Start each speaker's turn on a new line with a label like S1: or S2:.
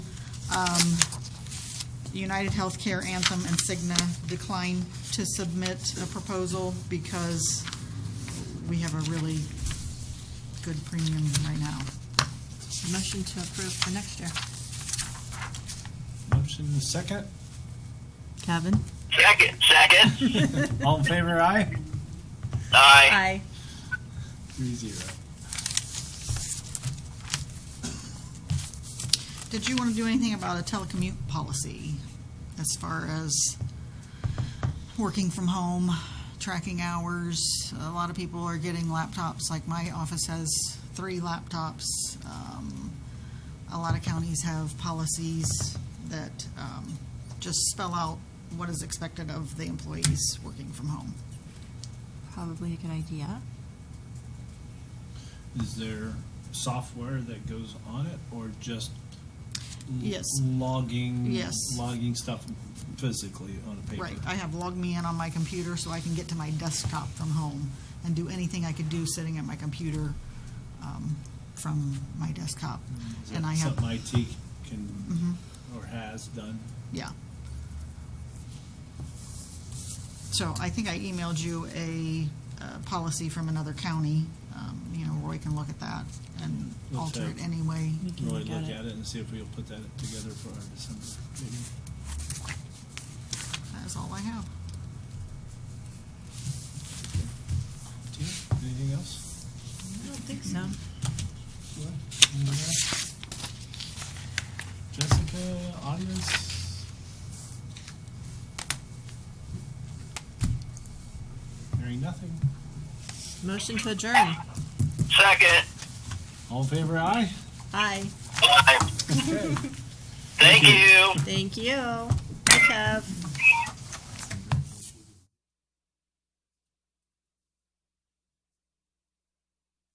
S1: um, United Healthcare, Anthem, and Cigna declined to submit a proposal because we have a really good premium right now.
S2: Motion to approve for next year.
S3: Motion is second.
S2: Kevin?
S4: Second, second.
S3: All in favor, aye?
S4: Aye.
S3: Three zero.
S1: Did you want to do anything about a telecommute policy as far as working from home, tracking hours? A lot of people are getting laptops, like my office has three laptops. Um, A lot of counties have policies that um, just spell out what is expected of the employees working from home.
S2: Probably a good idea.
S3: Is there software that goes on it or just l-
S1: Yes.
S3: logging
S1: Yes.
S3: logging stuff physically on a paper?
S1: Right, I have logged me in on my computer so I can get to my desktop from home and do anything I could do sitting at my computer um, from my desktop.
S3: Is that
S1: And I have,
S3: Mm-hmm.
S1: mm-hmm,
S3: something IT can or has done.
S1: yeah. So I think I emailed you a uh, policy from another county. Um, You know, Roy can look at that and
S3: Looks
S1: alter
S3: like-
S1: it anyway.
S2: We can
S3: Really
S2: look at it.
S3: it and see if we'll put that together for our December meeting.
S1: That is all I have.
S3: Tina, anything else?
S2: I don't think so.
S3: Anybody else? Jessica, audience? Hearing nothing.
S2: Motion to adjourn.
S4: Second.
S3: All in favor, aye?
S2: Aye.
S4: Aye. Thank you.
S2: Thank you. Bye, Kev.